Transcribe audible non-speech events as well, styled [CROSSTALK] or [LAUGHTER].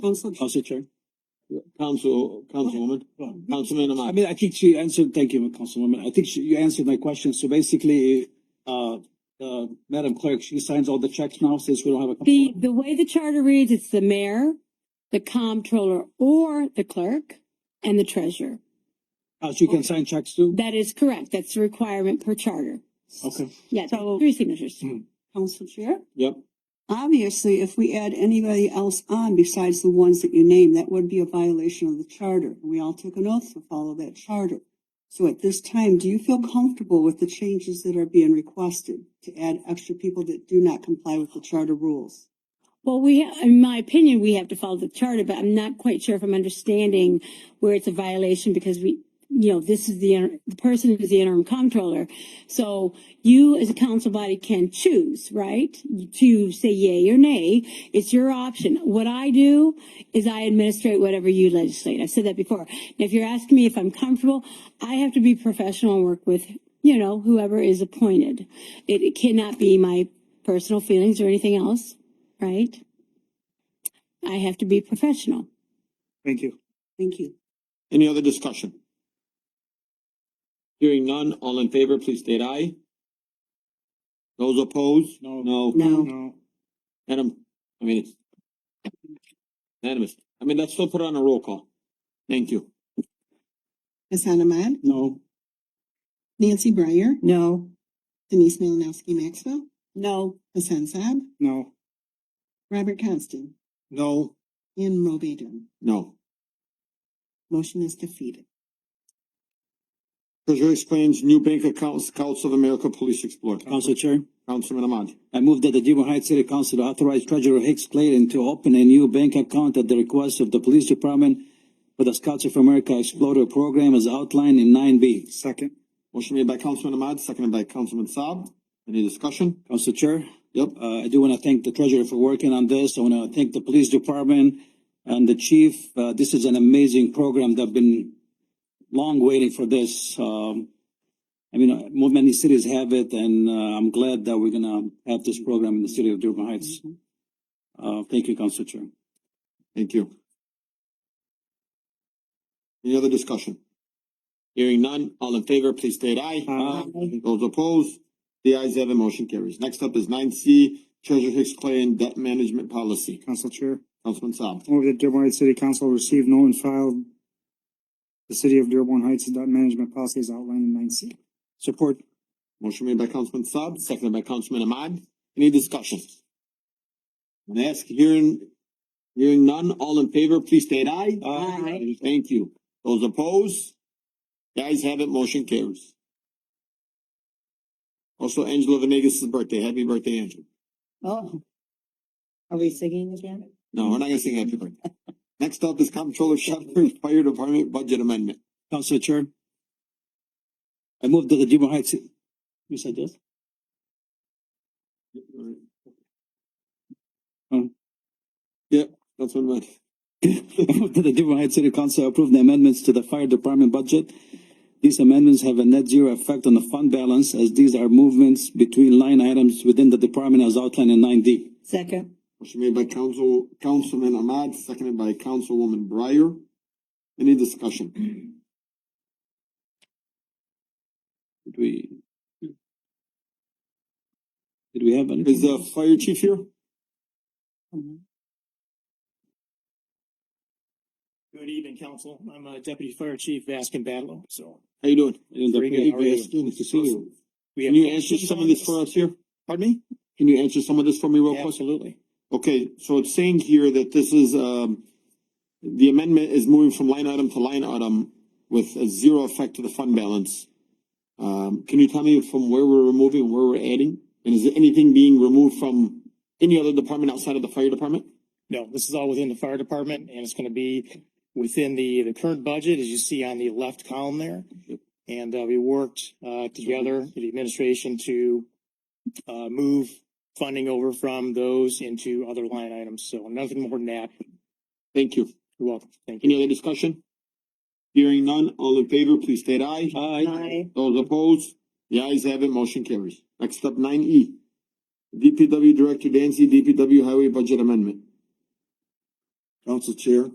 Councillor Councillor Chair. Council, Councilwoman, Councilman I Ahmad. mean, I think she answered, thank you, Councilwoman. I think she, you answered my question. So basically, uh, uh, Madam Clerk, she signs all the checks now since we don't have a. The, the way the charter reads, it's the mayor, the comptroller, or the clerk, and the treasurer. Uh, she can sign checks too? That is correct. That's the requirement per charter. Okay. Yeah, So- three signatures. Council Chair? Yep. Obviously, if we add anybody else on besides the ones that you named, that would be a violation of the charter. We all took an oath to follow that charter. So at this time, do you feel comfortable with the changes that are being requested to add extra people that do not comply with the charter rules? Well, we, ha- in my opinion, we have to follow the charter, but I'm not quite sure if I'm understanding where it's a violation because we, you know, this is the, inter- the person is the interim comptroller. So you as a council body can choose, right? To say yay or nay. It's your option. What I do is I administrate whatever you legislate. I've said that before. And if you're asking me if I'm comfortable, I have to be professional and work with, you know, whoever is appointed. It, it cannot be my personal feelings or anything else right? I have to be professional. Thank you. Thank you. Any other discussion? Hearing none, all in favor, please state aye. Those opposed? No. No. No. Adam, I mean, it's unanimous. I mean, let's still put on a roll call. Thank you. Hassan Ahmad, No. Nancy Breyer, No. Denise Malinowski Maxwell, No. Hassan Saab, No. Robert Constant, No. and Mo Beedum. No. Motion is defeated. Treasurer explains new bank accounts, Council of America Police Explorer. Council Chair. Councilman Ahmad. I move that the Dearborn Heights City Council authorize Treasurer Hicks Clayton to open a new bank account at the request of the Police Department for the Scouts of America Explorer Program as outlined in nine B. Second. Motion made by Councilman Ahmad, seconded by Councilman Saab. Any discussion? Council Chair, Yep. uh, I do want to thank the treasurer for working on this. I want to thank the police department and the chief. Uh, this is an amazing program that I've been long waiting for this. Um, I mean, uh, more many cities have it and, uh, I'm glad that we're gonna have this program in the city of Dearborn Heights. Mm-hmm. Uh, thank you, Council Chair. Thank you. Any other discussion? Hearing none, all in favor, please state aye. Uh, Aye. Those opposed, the ayes have it, motion carries. Next up is nine C, Treasurer Hicks Clay and Debt Management Policy. Council Chair, Councilman Saab. move that Dearborn Heights City Council receive, know, and file the City of Dearborn Heights debt management policy as outlined in nine C. Support. Motion made by Councilman Saab, seconded by Councilman Ahmad. Any discussion? And ask, hearing, hearing none, all in favor, please state aye. Aye. Thank you. Those opposed? The ayes have it, motion carries. Also, Angela Venegas' birthday. Happy birthday, Angela. Oh. Are we singing again? No, we're not gonna sing happy birthday. Next up is Comptroller Shepherd's Fire Department Budget Amendment. Council Chair. I move that the Dearborn Heights. You said yes? [LAUGHS] Um. Yep, that's what I meant. I move that the Dearborn Heights City Council approve the amendments to the fire department budget. These amendments have a net zero effect on the fund balance as these are movements between line items within the department as outlined in nine D. Second. Motion made by Council, Councilman Ahmad, seconded by Councilwoman Breyer. Any discussion? Did we? Did we have any? Is the fire chief here? Oh. Good evening, council. I'm uh, Deputy Fire Chief Vaskin Badlow, so. How you doing? In the Very good, pre- how are you? Good to see you. we Can have you answer some of this for us here? Pardon me? Can you answer some of this for me real quick? Absolutely. Okay, so it's saying here that this is, um, the amendment is moving from line item to line item with a zero effect to the fund balance. Um, can you tell me from where we're removing, and where we're adding? And is anything being removed from any other department outside of the fire department? No, this is all within the fire department and it's gonna be within the, the current budget, as you see on the left column there. And, uh, we worked, uh, together, with the administration to, uh, move funding over from those into other line items. So nothing more than that. Thank you. You're welcome. Thank you. Any other discussion? Hearing none, all in favor, please state aye. Aye. Those opposed, the ayes have it, motion carries. Next up, nine E. DPW Director Dancy, DPW Highway Budget Amendment. Council Chair.